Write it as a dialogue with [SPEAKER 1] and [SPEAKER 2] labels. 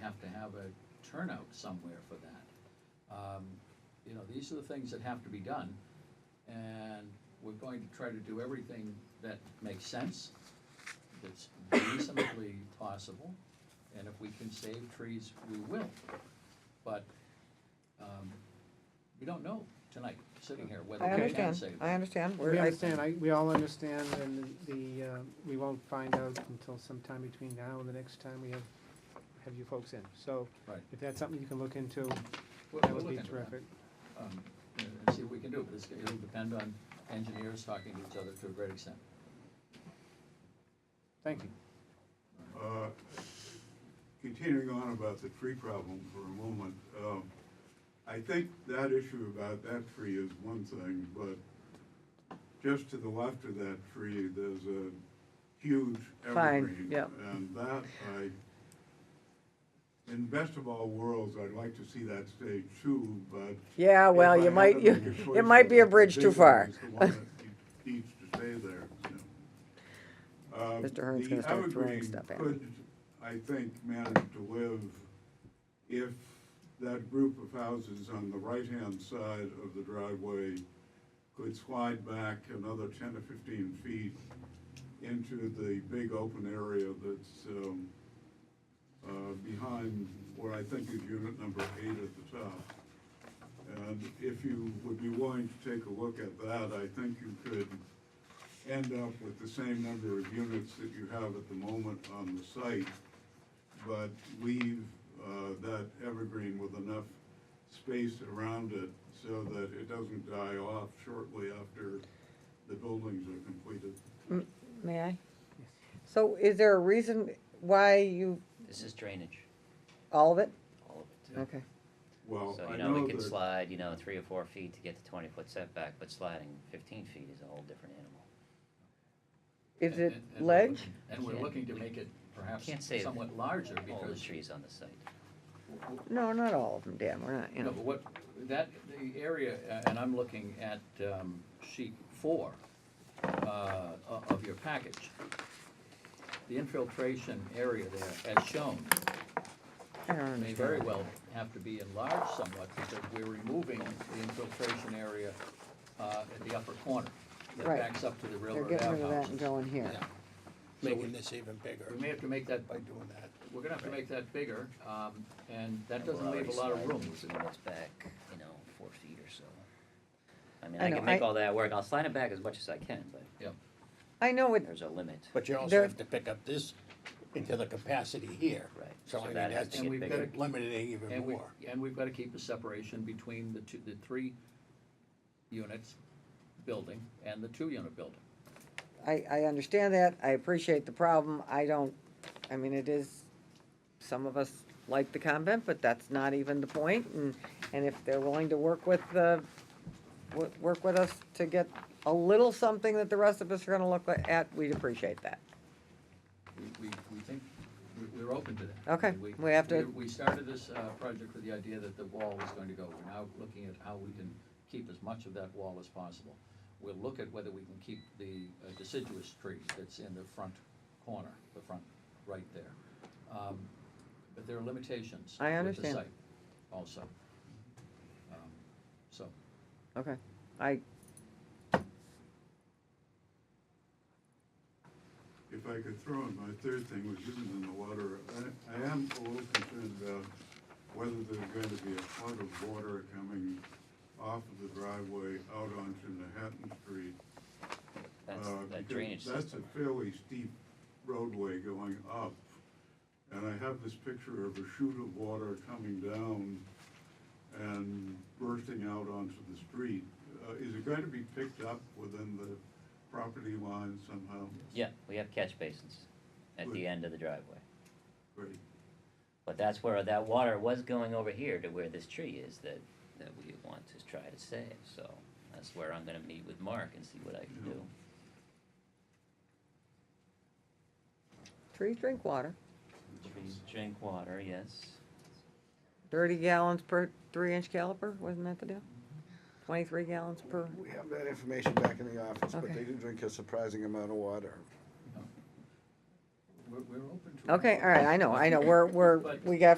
[SPEAKER 1] have to have a turnout somewhere for that. Um, You know, these are the things that have to be done, and we're going to try to do everything that makes sense, that's reasonably possible, and if we can save trees, we will. But, um, we don't know tonight, sitting here, whether
[SPEAKER 2] I
[SPEAKER 1] we can
[SPEAKER 2] understand,
[SPEAKER 1] save.
[SPEAKER 2] I understand. We're-
[SPEAKER 3] We
[SPEAKER 2] I-
[SPEAKER 3] understand, I, we all understand, and the, uh, we won't find out until sometime between now and the next time we have, have you folks in. So
[SPEAKER 1] Right.
[SPEAKER 3] if that's something you can look into,
[SPEAKER 1] We'll-
[SPEAKER 3] that
[SPEAKER 1] we'll
[SPEAKER 3] would
[SPEAKER 1] look
[SPEAKER 3] be
[SPEAKER 1] into that.
[SPEAKER 3] terrific.
[SPEAKER 1] um, and and see what we can do, but it's, it'll depend on engineers talking to each other to a great extent.
[SPEAKER 3] Thank you.
[SPEAKER 4] Uh, Continuing on about the tree problem for a moment, um, I think that issue about that tree is one thing, but just to the left of that tree, there's a huge
[SPEAKER 2] Fine,
[SPEAKER 4] evergreen.
[SPEAKER 2] yep.
[SPEAKER 4] And that, I, in best of all worlds, I'd like to see that stay too, but.
[SPEAKER 2] Yeah, Oh, well,
[SPEAKER 4] if I
[SPEAKER 2] you
[SPEAKER 4] had
[SPEAKER 2] might,
[SPEAKER 4] to
[SPEAKER 2] you,
[SPEAKER 4] make a choice,
[SPEAKER 2] it might be a
[SPEAKER 4] the
[SPEAKER 2] bridge too
[SPEAKER 4] big
[SPEAKER 2] far.
[SPEAKER 4] one is the one that Needs to stay there, you know. Uh,
[SPEAKER 2] Mr. Hearn's
[SPEAKER 4] the
[SPEAKER 2] gonna start throwing
[SPEAKER 4] evergreen
[SPEAKER 2] stuff at me.
[SPEAKER 4] could, I think, manage to live if that group of houses on the right-hand side of the driveway could slide back another ten or fifteen feet into the big open area that's, um, uh, behind what I think is unit number eight at the top. And if you would be willing to take a look at that, I think you could end up with the same number of units that you have at the moment on the site, but leave uh, that evergreen with enough space around it so that it doesn't die off shortly after the buildings are completed.
[SPEAKER 2] May I? So is there a reason why you,
[SPEAKER 5] This is drainage,
[SPEAKER 2] all of it?
[SPEAKER 5] all of it.
[SPEAKER 2] Okay.
[SPEAKER 1] Oh,
[SPEAKER 4] Well,
[SPEAKER 5] So,
[SPEAKER 4] I
[SPEAKER 5] you know, we
[SPEAKER 4] know
[SPEAKER 5] can
[SPEAKER 4] that,
[SPEAKER 5] slide, you know, three or four feet to get the twenty-foot setback, but sliding fifteen feet is a whole different animal.
[SPEAKER 2] Is
[SPEAKER 1] And-
[SPEAKER 2] it
[SPEAKER 1] and- and we're
[SPEAKER 2] ledge?
[SPEAKER 1] looking- And we're
[SPEAKER 5] Yeah.
[SPEAKER 1] looking to make it perhaps
[SPEAKER 5] Can't say
[SPEAKER 1] somewhat larger
[SPEAKER 5] All the
[SPEAKER 1] because,
[SPEAKER 5] trees on the site.
[SPEAKER 2] No, not all of them, Dan, we're not, you
[SPEAKER 1] no,
[SPEAKER 2] know.
[SPEAKER 1] but what, that, the area, uh, and I'm looking at um, sheet four uh, o- of your package. The infiltration area there, as shown,
[SPEAKER 2] I don't
[SPEAKER 1] may very
[SPEAKER 2] understand.
[SPEAKER 1] well have to be enlarged somewhat because we're removing the infiltration area uh, at the upper corner that
[SPEAKER 2] Right.
[SPEAKER 1] backs up to the
[SPEAKER 2] They're
[SPEAKER 1] railroad
[SPEAKER 2] getting rid of that
[SPEAKER 1] outhouses.
[SPEAKER 2] and going here.
[SPEAKER 1] Yeah. So
[SPEAKER 6] making
[SPEAKER 1] we-
[SPEAKER 6] this even bigger
[SPEAKER 1] we may have to make that,
[SPEAKER 6] by doing that.
[SPEAKER 1] we're gonna have to make that bigger, um, and that
[SPEAKER 5] And we're
[SPEAKER 1] doesn't leave a lot of
[SPEAKER 5] already
[SPEAKER 1] room.
[SPEAKER 5] sliding these units back, you know, four feet or so. I mean,
[SPEAKER 2] I
[SPEAKER 5] I
[SPEAKER 2] know,
[SPEAKER 5] can make
[SPEAKER 2] I-
[SPEAKER 5] all that work, I'll slide it back as much as I can, but
[SPEAKER 2] I know it,
[SPEAKER 5] there's a limit,
[SPEAKER 6] But you also
[SPEAKER 2] There-
[SPEAKER 6] have to pick up this into the capacity here.
[SPEAKER 5] right?
[SPEAKER 6] So I mean,
[SPEAKER 5] that has
[SPEAKER 6] that's
[SPEAKER 5] to
[SPEAKER 1] And
[SPEAKER 5] get
[SPEAKER 1] we've
[SPEAKER 5] bigger.
[SPEAKER 1] gotta-
[SPEAKER 6] limiting even
[SPEAKER 1] And we,
[SPEAKER 6] more.
[SPEAKER 1] and we've gotta keep a separation between the two, the three units building and the two-unit building.
[SPEAKER 2] I, I understand that, I appreciate the problem, I don't, I mean, it is, some of us like the convent, but that's not even the point, and, and if they're willing to work with the, wo- work with us to get a little something that the rest of us are gonna look at, we'd appreciate that.
[SPEAKER 1] we, we, we think, we- we're open to that.
[SPEAKER 2] Okay,
[SPEAKER 1] And
[SPEAKER 2] we have to-
[SPEAKER 1] We started this, uh, project with the idea that the wall was going to go. We're now looking at how we can keep as much of that wall as possible. We'll look at whether we can keep the uh, deciduous tree that's in the front corner, the front, right there. Um, But there are limitations.
[SPEAKER 2] I
[SPEAKER 1] with the
[SPEAKER 2] understand.
[SPEAKER 1] site Also. Um, So,
[SPEAKER 2] Okay, I,
[SPEAKER 4] if I could throw in my third thing, which isn't in the water, I, I am a little concerned about whether there's going to be a flood of water coming off of the driveway out onto Manhattan Street.
[SPEAKER 5] That's
[SPEAKER 4] uh,
[SPEAKER 1] Oh,
[SPEAKER 5] the
[SPEAKER 4] because
[SPEAKER 5] drainage
[SPEAKER 4] That's
[SPEAKER 5] system.
[SPEAKER 4] a fairly steep roadway going up, and I have this picture of a chute of water coming down and bursting out onto the street. Uh, Is it going to be picked up within the property line somehow?
[SPEAKER 5] Yeah, we have catch basins at
[SPEAKER 4] Good.
[SPEAKER 5] the end of the driveway.
[SPEAKER 4] Great.
[SPEAKER 5] But that's where that water was going over here to where this tree is that, that we want to try to save, so that's where I'm gonna meet with Mark and see what I can do.
[SPEAKER 2] trees drink water,
[SPEAKER 5] Trees drink water, yes.
[SPEAKER 2] thirty gallons per three-inch caliper, wasn't that the deal? Twenty-three gallons per,
[SPEAKER 7] We have that information back in the office, but
[SPEAKER 2] Okay.
[SPEAKER 7] they do drink a surprising amount of water.
[SPEAKER 1] we're, we're open to.
[SPEAKER 2] okay, all right, I know, I know, we're, we're, we got